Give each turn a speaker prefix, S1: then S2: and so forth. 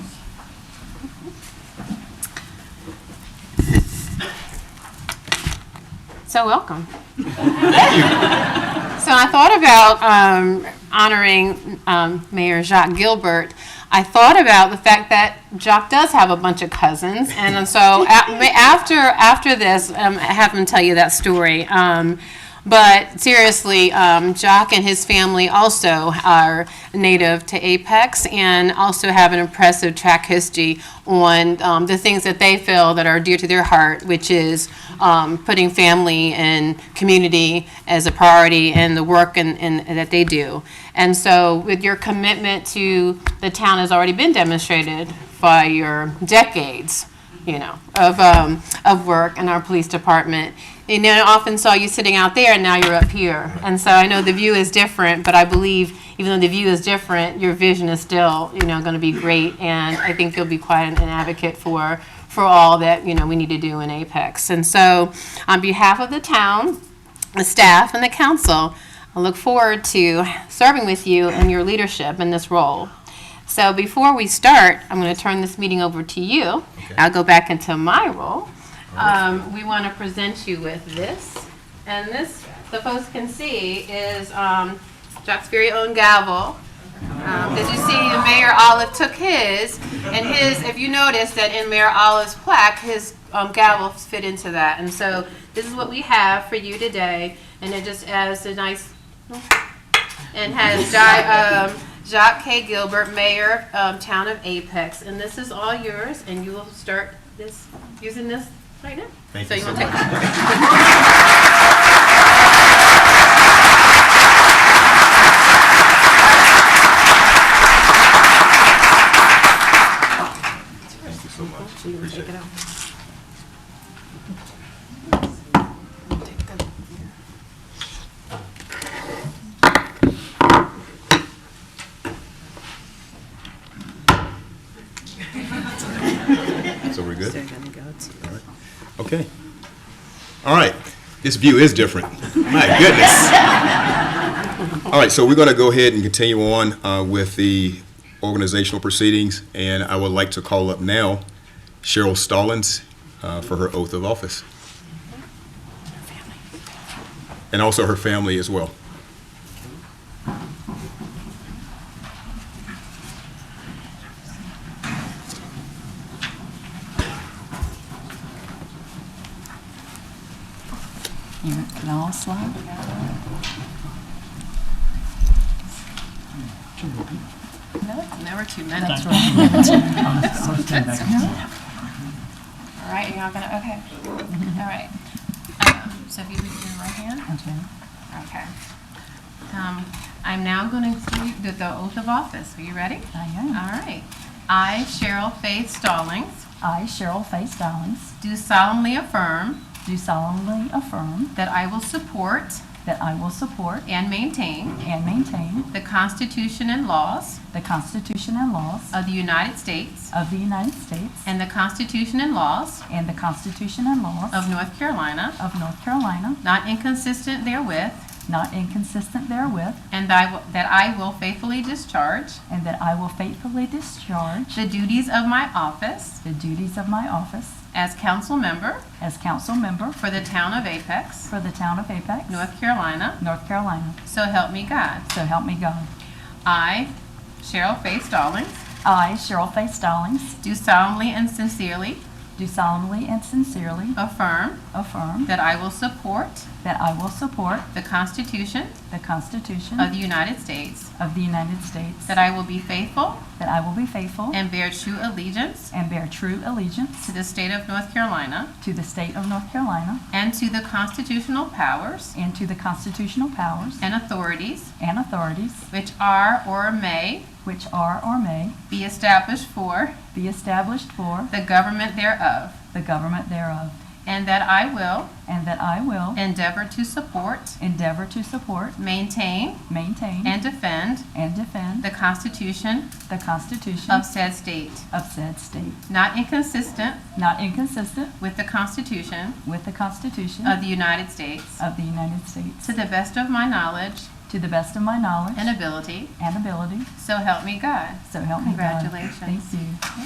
S1: So welcome. So I thought about um, honoring um, Mayor Jacques Gilbert. I thought about the fact that Jacques does have a bunch of cousins, and so a- after after this, um, I have him tell you that story. Um, but seriously, um, Jock and his family also are native to Apex and also have an impressive track history on um, the things that they feel that are dear to their heart, which is um, putting family and community as a priority in the work and, and that they do. And so, with your commitment to the town has already been demonstrated by your decades you know, of, um, of work in our police department. And I often saw you sitting out there and now you're up here. And so I know the view is different, but I believe even though the view is different, your vision is still, you know, going to be great. And I think you'll be quite an, an advocate for, for all that, you know, we need to do in Apex. And so on behalf of the town, the staff and the council, I look forward to serving with you and your leadership in this role. So before we start, I'm going to turn this meeting over to you. I'll go back into my role. Um, We want to present you with this. And this, the folks can see, is um, Jack's very own gavel. Because Um, you see, Mayor Olive took his, and his, if you notice that in Mayor Olive's plaque, his um, gavel fit into that. And so this is what we have for you today, and it just adds a nice and has Di- um, Jacques K. Gilbert, Mayor, um, Town of Apex. And this is all yours, and you will start this, using this right now.
S2: Thank
S1: So
S2: you
S1: you
S2: so
S1: wanna take-
S2: much. Thank you so much.
S1: You can
S2: Appreciate
S1: take it
S2: it.
S1: out.
S2: So we're good? All right. Okay. All right. This view is different. My goodness. All right, so we're going to go ahead and continue on uh, with the organizational proceedings, and I would like to call up now Cheryl Stallings uh, for her oath of office. And also her family as well.
S3: You can all slide. No, never too many. That's right.
S4: All right, you're not gonna, okay.
S3: Mm-hmm.
S4: All right. Um, So if you would do your right hand, okay. Um, I'm now gonna do the oath of office. Are you ready?
S3: I
S4: All
S3: am.
S4: right. I, Cheryl Faith Stallings,
S3: I, Cheryl Faith Stallings,
S4: do solemnly affirm
S3: do solemnly affirm
S4: that I will support
S3: that I will support
S4: and maintain
S3: and maintain
S4: the Constitution and laws
S3: the Constitution and laws
S4: of the United States
S3: of the United States
S4: and the Constitution and laws
S3: and the Constitution and laws
S4: of North Carolina,
S3: of North Carolina,
S4: not inconsistent therewith,
S3: not inconsistent therewith,
S4: and that I will- that I will faithfully discharge
S3: and that I will faithfully discharge
S4: the duties of my office
S3: the duties of my office
S4: as council member
S3: as council member
S4: for the town of Apex,
S3: for the town of Apex,
S4: North Carolina,
S3: North Carolina.
S4: so help me God.
S3: So help me God.
S4: I, Cheryl Faith Stallings,
S3: I, Cheryl Faith Stallings,
S4: do solemnly and sincerely
S3: do solemnly and sincerely
S4: affirm
S3: affirm
S4: that I will support
S3: that I will support
S4: the Constitution
S3: the Constitution
S4: of the United States,
S3: of the United States,
S4: that I will be faithful
S3: that I will be faithful
S4: and bear true allegiance
S3: and bear true allegiance
S4: to the state of North Carolina
S3: to the state of North Carolina
S4: and to the constitutional powers
S3: and to the constitutional powers
S4: and authorities
S3: and authorities
S4: which are or may
S3: which are or may
S4: be established for
S3: be established for
S4: the government thereof,
S3: the government thereof,
S4: and that I will
S3: and that I will
S4: endeavor to support
S3: endeavor to support,
S4: Maintain
S3: maintain,
S4: and defend
S3: and defend
S4: the Constitution
S3: the Constitution
S4: of said state,
S3: of said state,
S4: not inconsistent
S3: not inconsistent
S4: with the Constitution
S3: with the Constitution
S4: of the United States,
S3: of the United States.
S4: to the best of my knowledge
S3: To the best of my knowledge
S4: and ability,
S3: and ability,
S4: so help me God.
S3: so help me God.
S4: Congratulations.
S3: Thank you.